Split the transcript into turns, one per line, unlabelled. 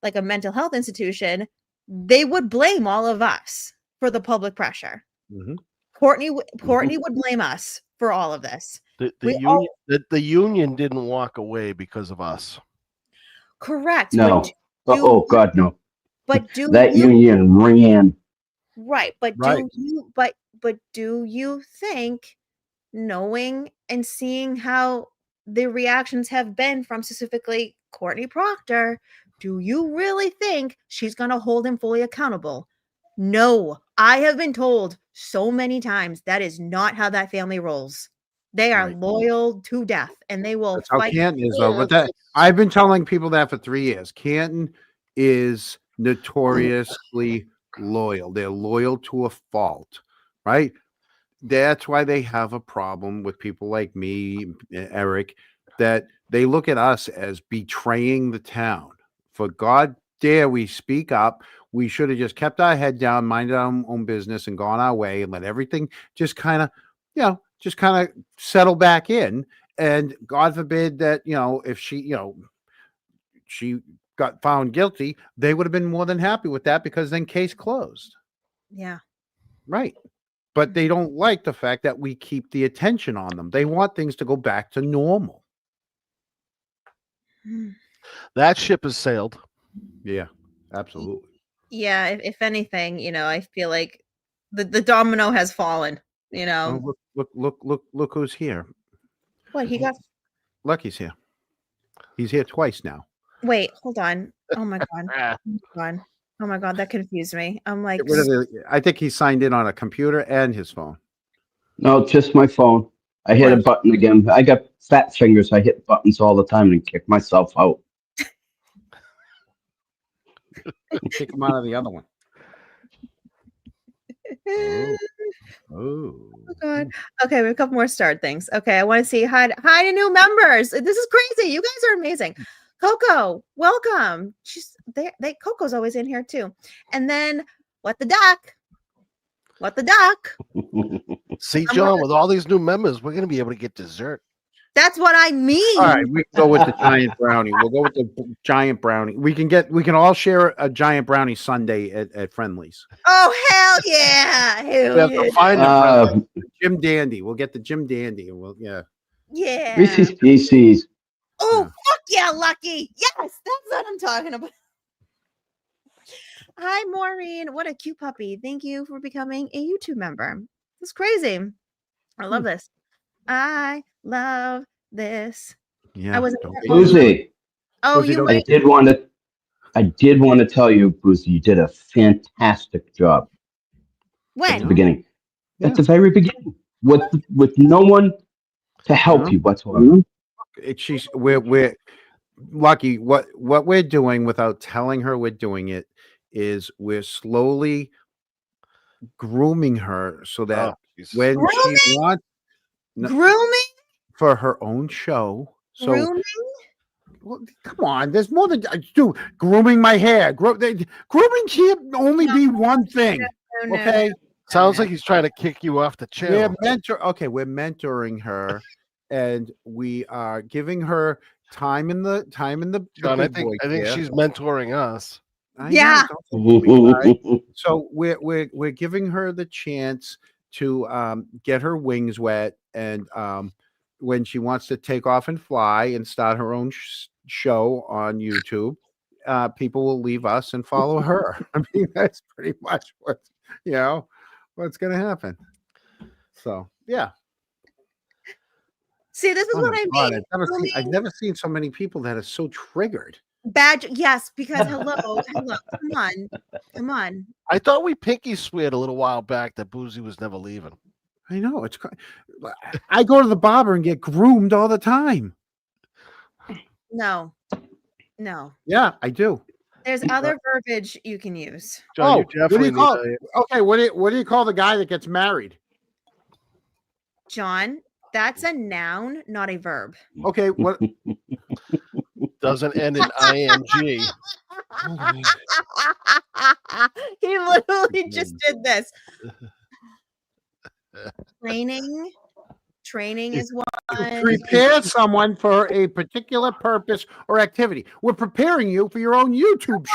like a mental health institution, they would blame all of us for the public pressure.
Mhm.
Courtney w- Courtney
Mm-hmm.
would blame us for all of this.
The, the
We
union,
all-
the, the union didn't walk away because of us.
Correct. but
No.
d-
Oh,
do-
oh, God, no.
But do
That
you
union ran.
Right, but
Right.
do you but but do you think knowing and seeing how the reactions have been from specifically Courtney Proctor, do you really think she's going to hold him fully accountable? No. I have been told so many times that is not how that family rolls. They are
Right.
loyal to death and they will
That's how
fight
Canton is though. But that I've been telling people that for three years. Canton is notoriously loyal. They're loyal to a fault, right? That's why they have a problem with people like me, eh, Eric, that they look at us as betraying the town. For God dare we speak up. We should have just kept our head down, minded our own- own business, and gone our way and let everything just kind of, you know, just kind of settle back in and god forbid that you know if she you know she got found guilty they would have been more than happy with that because then case closed
Yeah.
right but they don't like the fact that we keep the attention on them they want things to go back to normal
Hmm.
That ship has sailed.
yeah absolutely
Yeah, if, if anything, you know, I feel like the the domino has fallen, you know.
Oh, look, look look look look who's here
What he got?
lucky's here he's here twice now
Wait, hold on. Oh my god.
Ah,
Hold on. Oh my god, that confused me. I'm like,
Get rid of the- i think he signed in on a computer and his phone
No, just my phone. I hit a
Right.
button again. I got fat fingers. I hit buttons all the time and kick myself out.
kick him out of the other one.
oh
Oh
god. Okay, we have a couple more starred things. Okay, I want to see hi to- hi to new members. This is crazy. You guys are amazing. Coco, welcome. She's they they Coco's always in here too. And then what the doc? What the doc?
See,
I'm
John,
wondering-
with all these new members, we're going to be able to get dessert.
That's what I mean.
All right, we can go with the giant brownie. We'll go with the b- giant brownie. We can get we can all share a giant brownie Sunday at, at Friendlies.
Oh hell yeah. Hell
We have
yeah.
to find a
Uh,
Jim Dandy. We'll get the Jim Dandy and we'll yeah.
yeah.
Reese's Pieces.
Oh,
Yeah.
fuck yeah, Lucky. Yes, that's what I'm talking about. Hi, Maureen. What a cute puppy. Thank you for becoming a YouTube member. It's crazy. I
Hmm.
love this. I love this.
Yeah.
wasn't
don't
there.
be-
Boozy,
Oh,
Rosie,
you
don't-
I
wait.
did want to. I did want to tell you, Boozy, you did a fantastic job at the
When?
beginning.
Yeah.
At the very beginning, with with no one to help
No.
you whatsoever.
it, she's we're we're lucky what what we're doing without telling her we're doing it is we're slowly grooming her so that
Oh, Jesus.
when she
Grooming?
wants No.
Grooming?
for her own show. So
Grooming?
Well, come on, there's more than I do. Grooming my hair, Gro- they, grooming can't only be one thing.
Oh, no.
Okay,
Sounds like he's trying to kick you off the chair.
we're mentor. Okay, we're mentoring her, and we are giving her time in the time in the. the
John, I
big
think
boy
I think
gear.
she's mentoring us.
I
Yeah.
know, don't you worry. so we're we're we're giving her the chance to um, get her wings wet, and um, when she wants to take off and fly and start her own sh- show on YouTube, uh, people will leave us and follow her. I mean, that's pretty much what you know what's going to happen. So yeah,
See, this is
Oh
what
my
I
God,
mean.
I've, never seen, I've
grooming.
never seen so many people that are so triggered.
Badge. Yes, because hello, hello. Come on. Come on.
I thought we pinky sweared a little while back that Boozy was never leaving.
I know it's. cr- I go to the barber and get groomed all the time.
No. No.
Yeah, I do.
There's other verbiage you can use.
John,
Oh,
you
what do you
definitely need
call
to-
Okay, what do you, what do you call the guy that gets married?
John, that's a noun, not a verb.
Okay, what?
doesn't end in ing.
he literally just did this. Training. Training is one.
prepare someone for a particular purpose or activity. We're preparing you for your own YouTube